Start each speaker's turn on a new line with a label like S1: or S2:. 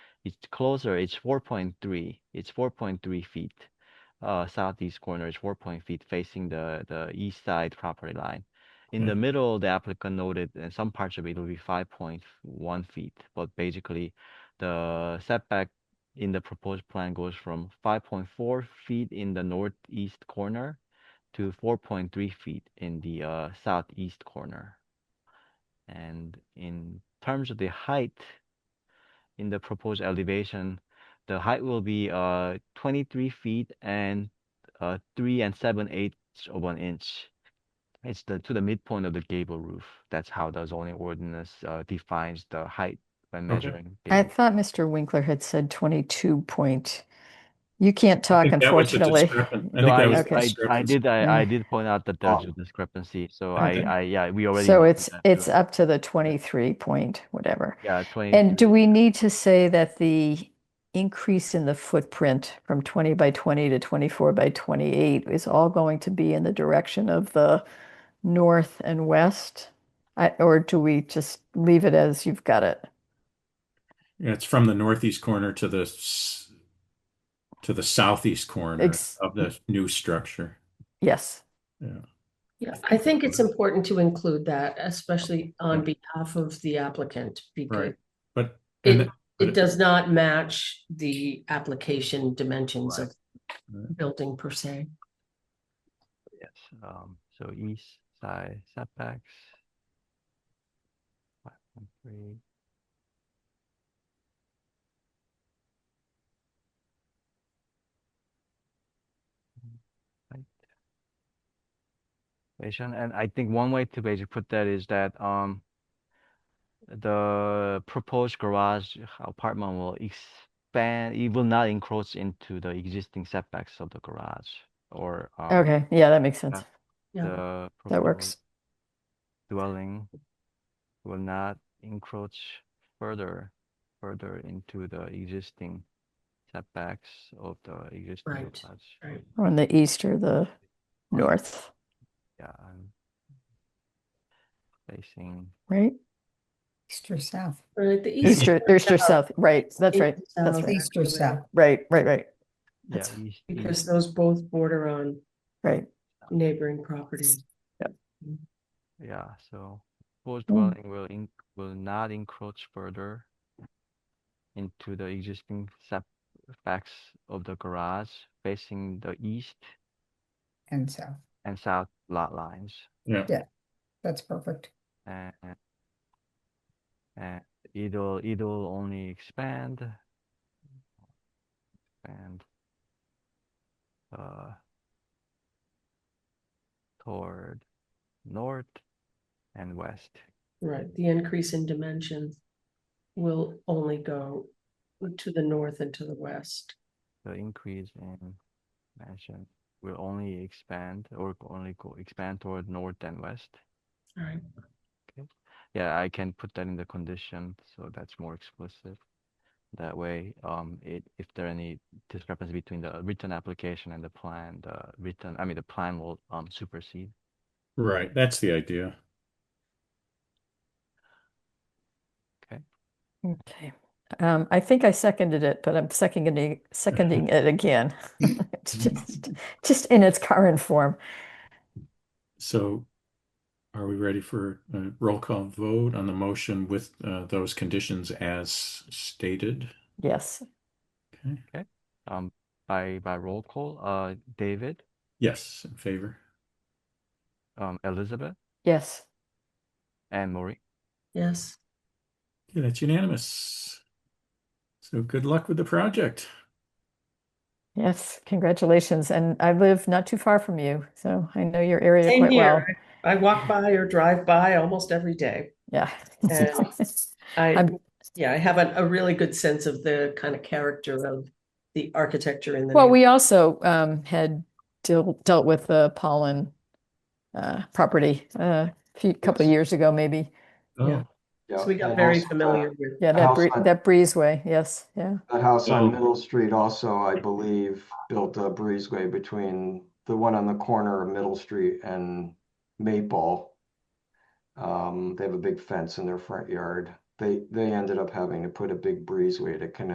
S1: It's closer, it's four point three, it's four point three feet. Uh, southeast corner is four point feet facing the, the east side property line. In the
S2: Okay.
S1: middle, the applicant noted that some parts of it will be five point one feet, but basically the setback in the proposed plan goes from five point four feet in the northeast corner to four point three feet in the uh, southeast corner. And in terms of the height in the proposed elevation, the height will be uh, 23 feet and uh, 3 and 7 eighths of an inch. It's the to the midpoint of the gable roof. That's how the zoning ordinance uh, defines the height when
S2: Okay.
S1: measuring.
S3: I
S1: gable.
S3: thought Mr. Winkler had said twenty-two point. You can't talk,
S2: think that was the
S3: unfortunately.
S2: discrepan- I
S1: No,
S2: think
S1: I,
S2: that
S3: was
S1: I,
S3: the
S1: I, I
S2: discrepancy.
S1: did, I, I did point out that there's
S2: Oh.
S1: a discrepancy, so
S2: Okay.
S1: I, I, yeah, we already.
S3: So
S1: noted
S3: it's,
S1: that,
S3: it's
S1: so-
S3: up to the twenty-three point, whatever.
S1: Yeah, 23.
S3: And do we need to say that the increase in the footprint from twenty by twenty to twenty-four by twenty-eight is all going to be in the direction of the north and west? I, or do we just leave it as you've got it?
S2: Yeah, it's from the northeast corner to the s- to the southeast corner
S3: Ex-
S2: of the new structure.
S1: Um,
S3: Yes,
S2: Yeah.
S4: Yeah, I think it's important to include that, especially on behalf of the applicant, because
S2: Right. But
S4: It-
S2: and but
S4: it does not match the application dimensions of
S2: Right.
S4: building per se.
S1: Yes, um, so east side setbacks. Five point three. Right. Basically, and I think one way to basically put that is that, um. The proposed garage apartment will expand, it will not encroach into the existing setbacks of the garage or, um.
S3: okay, yeah, that makes sense.
S4: Yeah,
S1: The
S3: That
S1: proposed
S3: works.
S1: dwelling will not encroach further, further into the existing setbacks of the existing
S4: Right,
S1: garage.
S4: right.
S3: On the east or the north,
S1: Yeah, I'm facing,
S3: right?
S5: East or south?
S4: Or the east.
S3: East or, there's your south, right, that's right,
S4: East or
S3: that's
S4: south.
S3: right,
S5: East or south?
S3: right, right, right,
S1: yeah,
S3: That's-
S1: east,
S4: Because
S1: east,
S4: those both border on
S3: right.
S4: neighboring properties.
S1: yeah, so proposed
S3: Mm.
S1: dwelling will in, will not encroach further into the existing setbacks of the garage facing the east
S5: And south.
S1: and south lot lines.
S2: yeah.
S5: That's perfect.
S1: and and it'll it'll only expand and uh toward north and west
S4: Right, the increase in dimensions will only go to the north and to the west.
S1: the increase in mansion will only expand or only go expand toward north and west
S4: All right,
S1: yeah i can put that in the condition so that's more explicit that way um it if there are any discrepancy between the written application and the plan the written i mean the plan will um supersede
S2: Right. That's the idea.
S3: Okay, um, I think I seconded it, but I'm seconding, seconding it again. It's just, just in its current form.
S2: So are we ready for a roll call vote on the motion with uh, those conditions as stated?
S3: Yes,
S2: Okay.
S1: um by by roll call uh david
S2: Yes, in favor.
S1: um elizabeth
S3: yes,
S1: and maureen
S4: yes,
S2: Okay, that's unanimous. So good luck with the project.
S3: yes, congratulations. And I live not too far from you, so I know your area
S4: Same
S3: quite well.
S4: I walk by or drive by almost every day.
S3: Yeah.
S4: And I,
S3: I'm-
S4: yeah, I have a, a really good sense of the kind of character of the architecture in the.
S3: Well,
S4: neighborhood.
S3: we also um, had deal, dealt with the pollen uh, property uh, a few, couple of years ago, maybe.
S2: Oh,
S4: So we got
S6: uh,
S4: very familiar with.
S3: Yeah,
S6: The
S3: that
S6: house
S3: bree-
S6: on-
S3: that breezeway. Yes, yeah.
S6: That house
S2: Oh.
S6: on Middle Street also, I believe, built a breezeway between the one on the corner of Middle Street and Maple. Um, they have a big fence in their front yard. They, they ended up having to put a big breezeway to connect